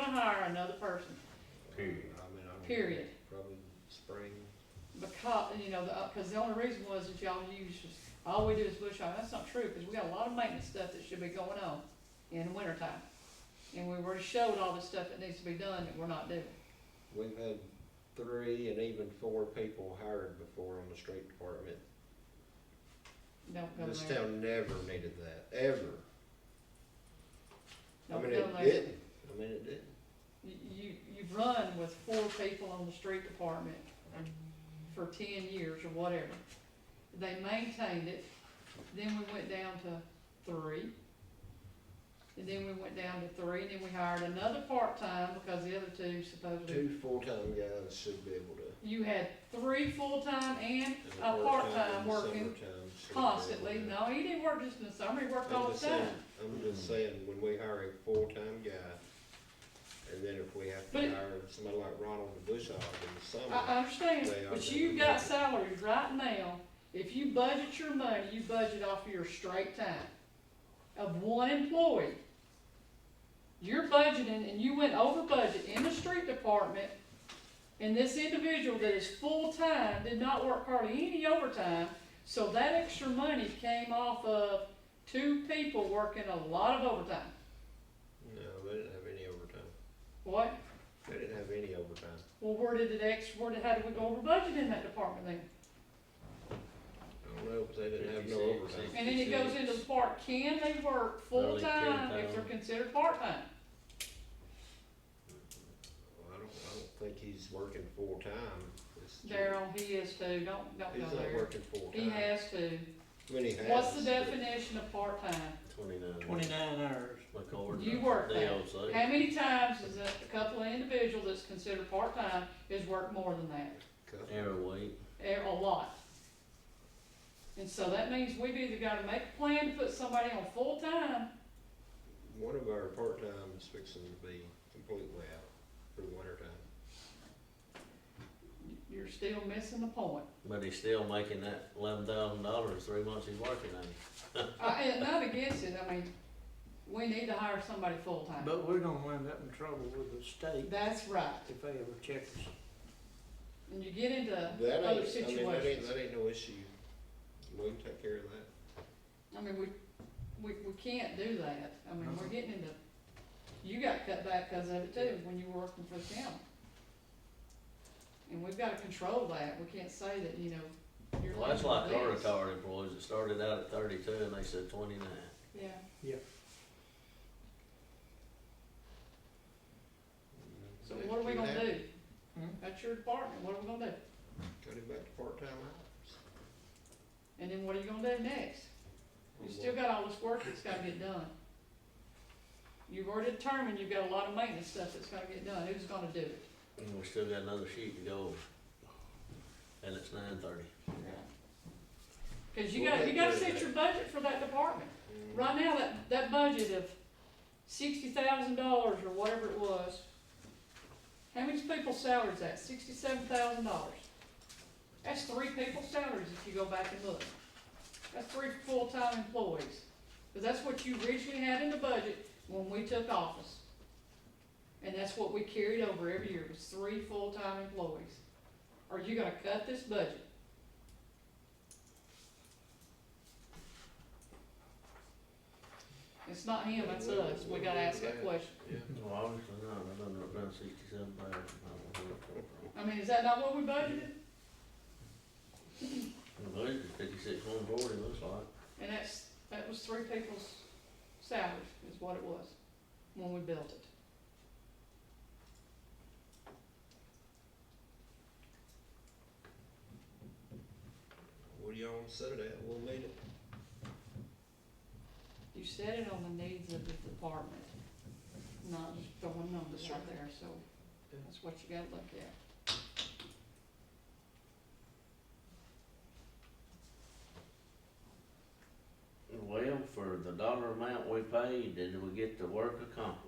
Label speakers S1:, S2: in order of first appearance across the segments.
S1: hire another person,
S2: period.
S3: I mean, I would
S1: period.
S3: Probably spring.
S1: Because, you know, the, because the only reason was that y'all use, all we do is bush hog, that's not true, because we got a lot of maintenance stuff that should be going on in the winter time. And we already showed all the stuff that needs to be done that we're not doing.
S3: We've had three and even four people hired before on the street department.
S1: Don't go
S3: This
S1: there.
S3: town never needed that, ever. I
S1: Don't
S3: mean,
S1: go
S3: it
S1: there.
S3: didn't. I mean, it didn't.
S1: You, you- you've run with four people on the street department for ten years or whatever. They maintained it, then we went down to three. And then we went down to three, and then we hired another part-time because the other two supposedly
S3: Two full-time guys should be able to.
S1: You had three full-time and
S3: and
S1: a
S3: part-time
S1: part-time
S3: in the
S1: working
S3: summertime should be able
S1: constantly.
S3: to.
S1: No, he didn't work just in the summer, he worked all
S3: I'm
S1: the
S3: just
S1: time.
S3: saying, I'm just saying, when we hire a full-time guy, and then if we have to
S1: But it- Uh-uh.
S3: hire somebody like Ronald DeBushog in the
S1: I, I
S3: summer,
S1: understand,
S3: They are
S1: but
S3: doing
S1: you've got
S3: it.
S1: salaries right now. If you budget your money, you budget off your straight time of one employee. You're budgeting and you went over budget in the street department. And this individual that is full-time did not work hardly any overtime. So that extra money came off of two people working a lot of overtime.
S3: no, they didn't have any overtime.
S1: What?
S3: They didn't have any overtime.
S1: Well, where did it ex, where did, how did we go over budget in that department then?
S3: I don't know, but they didn't have no
S2: 56,
S3: overtime.
S1: And then it goes into the part, can they work full-time if they're considered part-time?
S3: Well, I don't, I don't think he's working full-time. It's just-
S1: Daryl, he is too, don't, don't
S3: He's
S1: go
S3: not
S1: there.
S3: working full-time.
S1: He has to.
S3: I mean, he
S1: What's the
S3: has,
S1: definition of part-time?
S2: Twenty-nine.
S4: Twenty-nine hours.
S2: Look over
S1: You
S2: the-
S1: work
S2: the
S1: there.
S2: LC.
S1: How many times is a a couple of individuals that's considered part-time is worked more than that?
S3: but-
S2: Every week,
S1: a a lot. And so that means we've either gotta make a plan to put somebody on full-time,
S3: One of our part-time is fixing to be completely out for the winter time.
S1: you're still missing the point.
S2: but he's still making that eleven thousand dollars three months he's working on it.
S1: I, and not against it, I mean, we need to hire somebody full-time.
S4: But we're gonna wind up in trouble with the state
S1: That's right.
S4: if they ever check us.
S1: And you get into
S3: That
S1: other
S3: ain't, I mean, that ain't,
S1: situations.
S3: that ain't no issue. We can take care of that.
S1: I mean, we, we, we can't do that. I mean, we're getting into, you got cut back because of it too, when you were working for the county. And we've gotta control that. We can't say that, you know, you're.
S2: Well, that's like
S1: limited
S2: our
S1: this.
S2: retired employees that started out at thirty-two and they said twenty-nine.
S1: Yeah, so what are we gonna do?
S4: Hmm?
S1: That's your department. What are we gonna do?
S3: Cut it back to part-time hours.
S1: And then what are you gonna do next? You still got all this work that's gotta get done. You've already determined you've got a lot of maintenance stuff that's gotta get done. Who's gonna do it?
S2: And we still got another sheet to go over. And it's nine thirty.
S1: Cause you
S3: Well,
S1: gotta, you gotta
S3: that goes
S1: set
S3: back.
S1: your budget for that department.
S3: Mm,
S1: Right now, that, that budget of sixty thousand dollars or whatever it was, how many people's salaries that? Sixty-seven thousand dollars. That's three people's salaries if you go back and look. That's three full-time employees. Cause that's what you originally had in the budget when we took office. And that's what we carried over every year, was three full-time employees. Are you gonna cut this budget? It's not him, it's us. We gotta ask that question.
S3: Yeah.
S2: Well, obviously not, I've done it around sixty-seven thousand.
S1: I mean, is that not what we budgeted?
S2: Fifty-six, one forty, looks like.
S1: And that's, that was three people's salaries is what it was when we built it.
S3: What do y'all wanna set it at? We'll meet it.
S1: You set it on the needs of the department, not just throwing numbers out there, so that's what you gotta look at.
S2: Well, for the dollar amount we paid, did we get the work accomplished?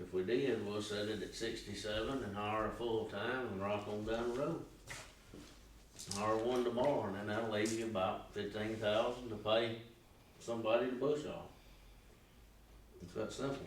S2: If we did, we'll set it at sixty-seven and hire a full-time and rock on down the road. Hire one tomorrow, and then that'll leave you about fifteen thousand to pay somebody to bush off. It's that simple.